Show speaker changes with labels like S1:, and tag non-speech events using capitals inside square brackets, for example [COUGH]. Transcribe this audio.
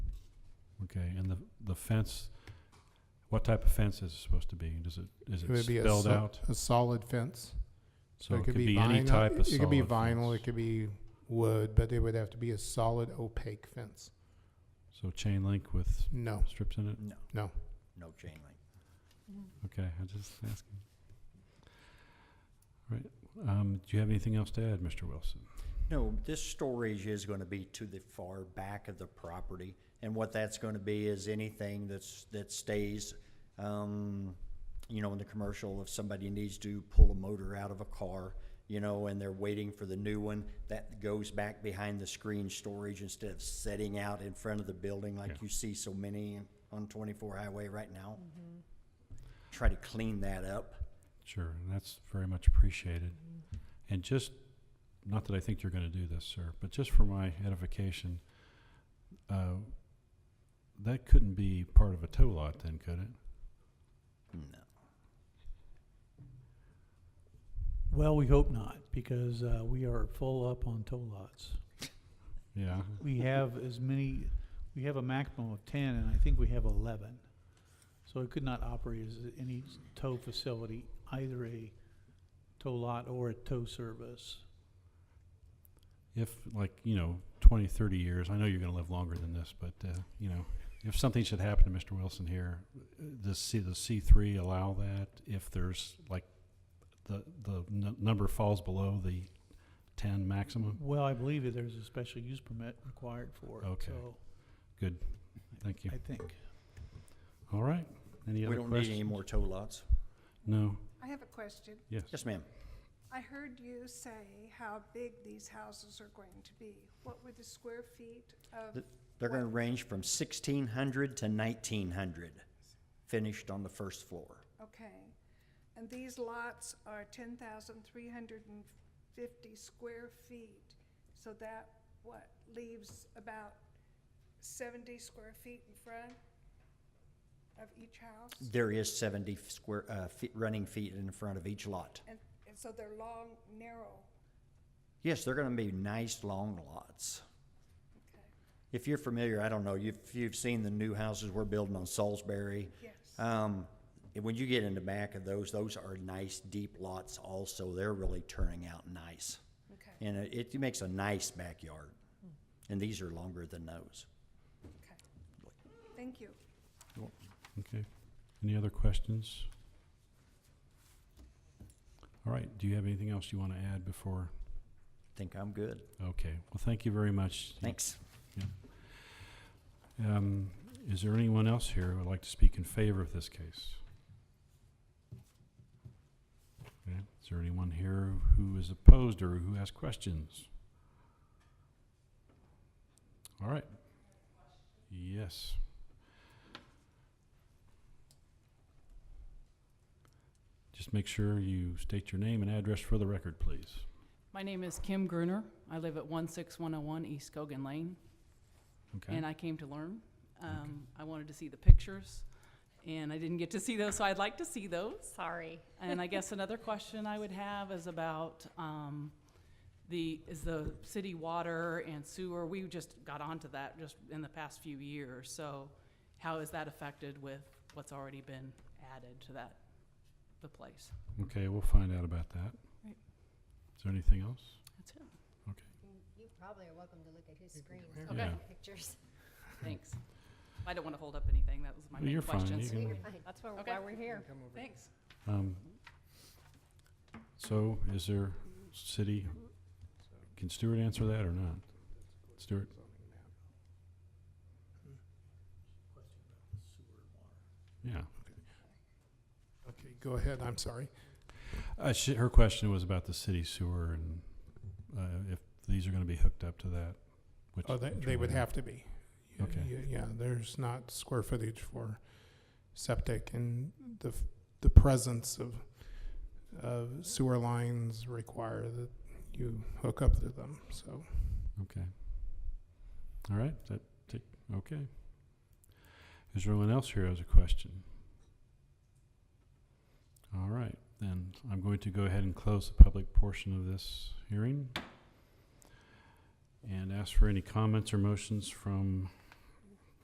S1: Okay, and the, the fence, what type of fence is it supposed to be? Does it, is
S2: It would be
S1: it
S2: a
S1: spelled
S2: sol-
S1: out?
S2: a solid fence.
S1: So it could
S2: be
S1: be any
S2: vinyl-
S1: type of solid
S2: It could be vinyl,
S1: fence.
S2: it could be wood, but it would have to be a solid opaque fence.
S1: So chain link with
S2: No,
S1: strips in it?
S3: No.
S2: No.
S3: No chain link.
S1: Okay, I just asking. All right, um, do you have anything else to add, Mr. Wilson?
S3: No, this storage is gonna be to the far back of the property, and what that's gonna be is anything that's, that stays, um, you know, in the commercial, if somebody needs to pull a motor out of a car, you know, and they're waiting for the new one, that goes back behind the screen storage instead of setting out in front of the building
S1: Yeah.
S3: like you see so many on twenty-four highway right now. Try to clean that up.
S1: Sure, and that's very much appreciated. And just, not that I think you're gonna do this, sir, but just for my edification, uh, that couldn't be part of a tow lot then, could it?
S3: No.
S4: Well, we hope not, because uh, we are full up on tow lots.
S1: Yeah,
S4: We have as many, we have a maximum of ten, and I think we have eleven. So it could not operate as any tow facility, either a tow lot or a tow service.
S1: if like, you know, twenty, thirty years, I know you're gonna live longer than this, but, uh, you know, if something should happen to Mr. Wilson here, uh, does C, does C three allow that if there's like, the, the n- number falls below the ten maximum?
S4: Well, I believe that there's a special use permit required for it,
S1: Okay.
S4: so
S1: Thank you.
S4: I think.
S1: All right, any
S3: We
S1: other
S3: don't
S1: questions?
S3: need any more tow lots.
S1: No,
S5: I have a question.
S1: yes.
S3: Yes, ma'am.
S5: I heard you say how big these houses are going to be. What were the square feet of,
S3: Th- They're gonna range from sixteen hundred to nineteen hundred, finished on the first floor.
S5: okay. And these lots are ten thousand three hundred and fifty square feet. So that, what, leaves about seventy square feet in front of each house?
S3: There is seventy square, uh, feet, running feet in front of each lot.
S5: And, and so they're long, narrow,
S3: Yes, they're gonna be nice, long lots.
S5: okay,
S3: If you're familiar, I don't know, you've, you've seen the new houses we're building on Salisbury.
S5: yes.
S3: Um, and when you get in the back of those, those are nice, deep lots also. They're really turning out nice.
S5: Okay,
S3: And it, it makes a nice backyard. And these are longer than those.
S5: okay. Thank you.
S1: Okay. Any other questions? All right, do you have anything else you want to add before?
S3: Think I'm good.
S1: Okay, well, thank you very much.
S3: Thanks.
S1: Um, is there anyone else here who would like to speak in favor of this case? Okay, Is there anyone here who is opposed or who has questions? All right. Yes. Just make sure you state your name and address for the record, please.
S6: My name is Kim Gruner. I live at 16101 East Cogan Lane,
S1: Okay,
S6: and I came to learn. Um, I wanted to see the pictures, and I didn't get to see those, so I'd like to see those.
S7: Sorry.
S6: [LAUGHS] And I guess another question I would have is about um, the, is the city water and sewer, we just got onto that just in the past few years, so how is that affected with what's already been added to that, the place?
S1: okay, we'll find out about that.
S6: Right.
S1: Is there anything else?
S6: That's it.
S7: You probably are welcome to look at his screen.
S6: Okay.
S1: Yeah.
S7: Pictures.
S6: Thanks. I don't want to hold up anything. That was my
S1: Well, [LAUGHS]
S6: main
S1: you're fine.
S6: question.
S1: You
S6: so-
S1: can-
S7: That's why,
S6: Okay.
S7: why we're here.
S6: Thanks.
S1: Um, So is there city, can Stewart answer that or not? Stewart? Yeah.
S2: Okay, go ahead, I'm sorry.
S1: Uh, she, her question was about the city sewer and, uh, if these are gonna be hooked up to that, which.
S2: Oh, they,
S1: which
S2: they
S1: are
S2: would have to be. Y-
S1: Okay.
S2: y- Yeah, there's not square footage for septic and the, f- the presence of, of sewer lines require that you hook up to them, so.
S1: All right, that, take, okay. Is there anyone else here who has a question? All right, then I'm going to go ahead and close the public portion of this hearing. And ask for any comments or motions from